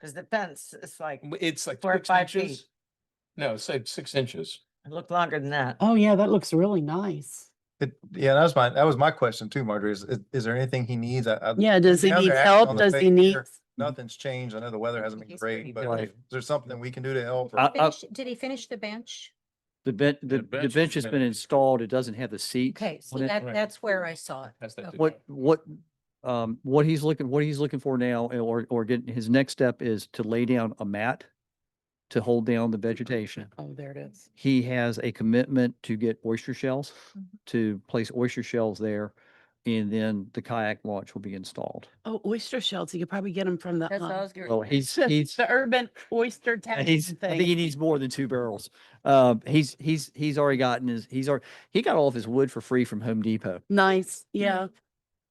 Cause the fence is like, W- It's like Four or six five feet. inches. No, it's like six inches. it looked longer than that. Oh, yeah, that looks really nice. It, yeah, that was my, that was my question too, Marjorie. Is, is- is there anything he needs? I- I- Yeah, does he Now they're need acting help? on the Does he fake need? here. Nothing's changed. I know the weather hasn't been He's pretty great, but Right. is there something we can do to help? I- or- I- Finish- Did he finish the bench? The bench, the, bench the has bench has been- been installed. It doesn't have the seat. Okay, so on it. that, Right. that's where I saw it. That's that Okay. What, what, um, what he's looking, what he's looking for now, and- or, or getting, his next step is to lay down a mat to hold down the vegetation. Oh, there it is. He has a commitment to get oyster shells, Mhm. to place oyster shells there. And then the kayak launch will be installed. Oh, oyster shells. You could probably get them from the. That's what I uh, was gonna- Well, he's, he's, The urban oyster Uh, tax He's, I think he thing. needs more than two barrels. Um, he's, he's, he's already gotten his, he's already, he got all of his wood for free from Home Depot. Nice, yeah.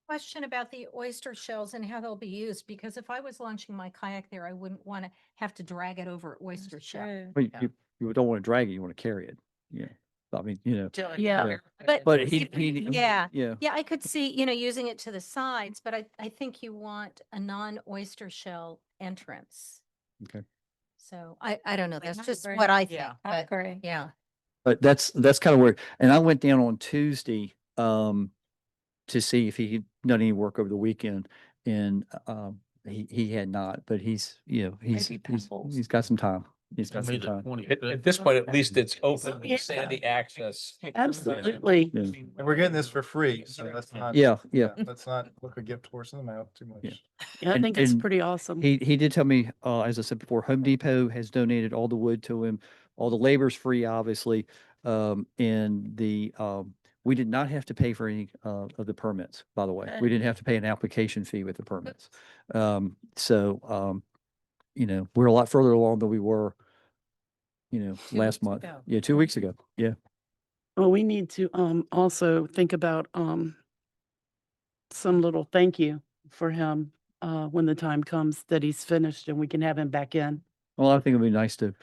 Question about the oyster shells and how they'll be used, because if I was launching my kayak there, I wouldn't want to have to drag it over oyster shell. But you- Yeah. you, you don't want to drag it, you want to carry it. Yeah. I mean, you know, Yeah. But but he, he. Yeah. Yeah. Yeah, I could see, you know, using it to the sides, but I, I think you want a non-oyster shell entrance. Okay. So I, I don't know. Like That's not just very- what I think, yeah, but yeah. But that's, that's kind of where, and I went down on Tuesday, um, to see if he had done any work over the weekend and, uh, um, he, he had not, but he's, you know, he's, Maybe he's- pebbles. he's got some time. He's got some time. At, at this point, at least it's open, Yeah. sandy access. Absolutely. Yeah. And we're getting this for free, so let's not. Yeah, yeah. Let's not look a gift horse in the mouth too Yeah. much. Yeah, I And- think it's and pretty awesome. He, he did tell me, uh, as I said before, Home Depot has donated all the wood to him. All the labor's free, obviously. Um, and the, um, we did not have to pay for any, uh, of the permits, by the way. We didn't have to pay an application fee with the permits. Um, so, um, you know, we're a lot further along than we were, you know, last month. ago. Yeah, two weeks ago. Yeah. Well, we need to um also think about um some little thank you for him uh when the time comes that he's finished and we can have him back in. Well, I think it'd be nice to,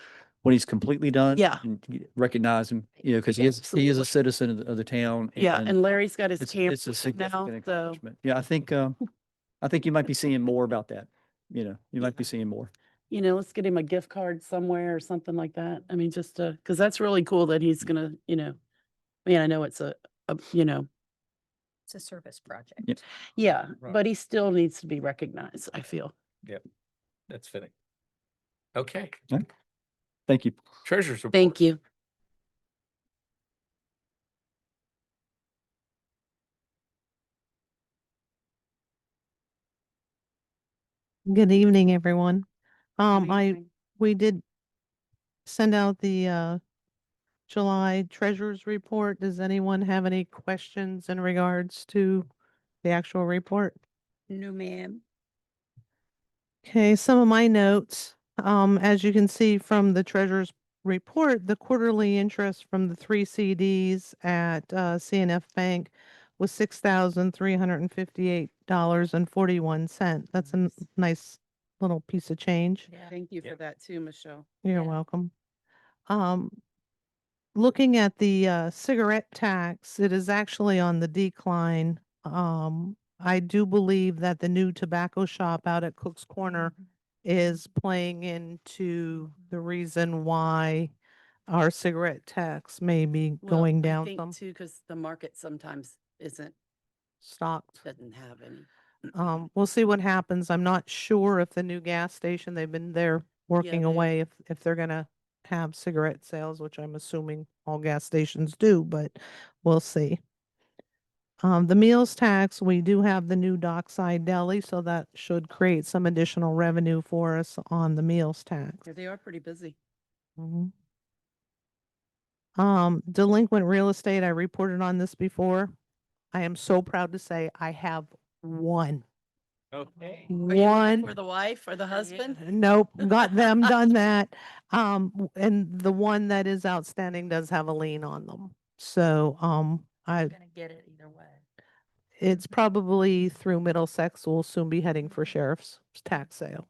when he's completely done. Yeah. and y- Recognize him, you know, because he is, he is Absolutely. a citizen of the, of the town. Yeah, and Larry's got his It's, camp it's a now, significant so accomplishment. Yeah, I think, um, I think you might be seeing more about that. You know, you might be seeing more. you know, let's get him a gift card somewhere or something like that. I mean, just uh, because that's really cool that he's gonna, you know, I mean, I know it's a, a you know, It's a service project. Yeah. yeah, Right. but he still needs to be recognized. I feel. That's fitting. Okay, Thank you. treasures. report. Thank you. Good evening, everyone. Um, I, we did send out the, uh, July treasurer's report. Does anyone have any questions in regards to the actual report? No, ma'am. Okay, some of my notes. Um, as you can see from the treasurer's report, the quarterly interest from the three CDs at uh, CNF Bank was six thousand three hundred and fifty-eight dollars and forty-one cent. That's a n- nice little piece of change. Thank you Yeah. for that too, Michelle. You're Yeah. welcome. Um, looking at the uh, cigarette tax, it is actually on the decline. Um, I do believe that the new tobacco shop out at Cook's Corner Mm-hmm. is playing into the reason why our cigarette tax may be Well, going I down think some too, because the market sometimes isn't stocked. doesn't have any. Um, we'll see what happens. I'm not sure if the new gas station, they've been there working they- away, if, if they're gonna have cigarette sales, which I'm assuming all gas stations do, but we'll see. Um, the meals tax, we do have the new dockside deli, so that should create some additional revenue for us on the meals tax. Yeah, They are pretty busy. Mhm. Um, delinquent real estate, I reported on this before. I am so proud to say I have one. Okay. One. for the wife or the husband. Nope, got them, done that. Um, w- and the one that is outstanding does have a lien on them. So, um, I, Gonna get it either way. it's probably through Middlesex, we'll soon be heading for sheriff's tax sale.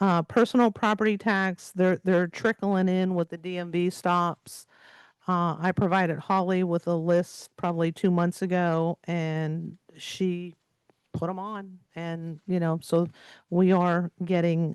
Uh, personal property tax, they're, they're trickling in with the DMV stops. Uh, I provided Holly with a list probably two months ago and she put them on. And, you know, so we are getting